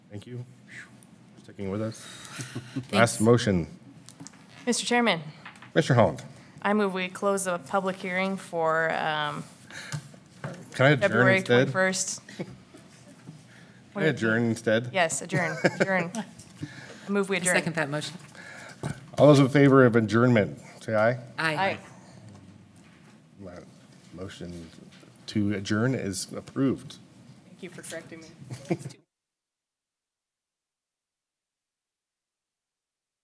Thank you for sticking with us. Last motion, Mr. Chairman, Mr. Holland, I move we close the public hearing for um, can I adjourn February instead? Can 21st. I adjourn instead? Yes, adjourn, adjourn. I Move we I adjourn. second that motion. All those in favor of adjournment, say aye. Aye. My Motion to adjourn is approved. Thank you for correcting me.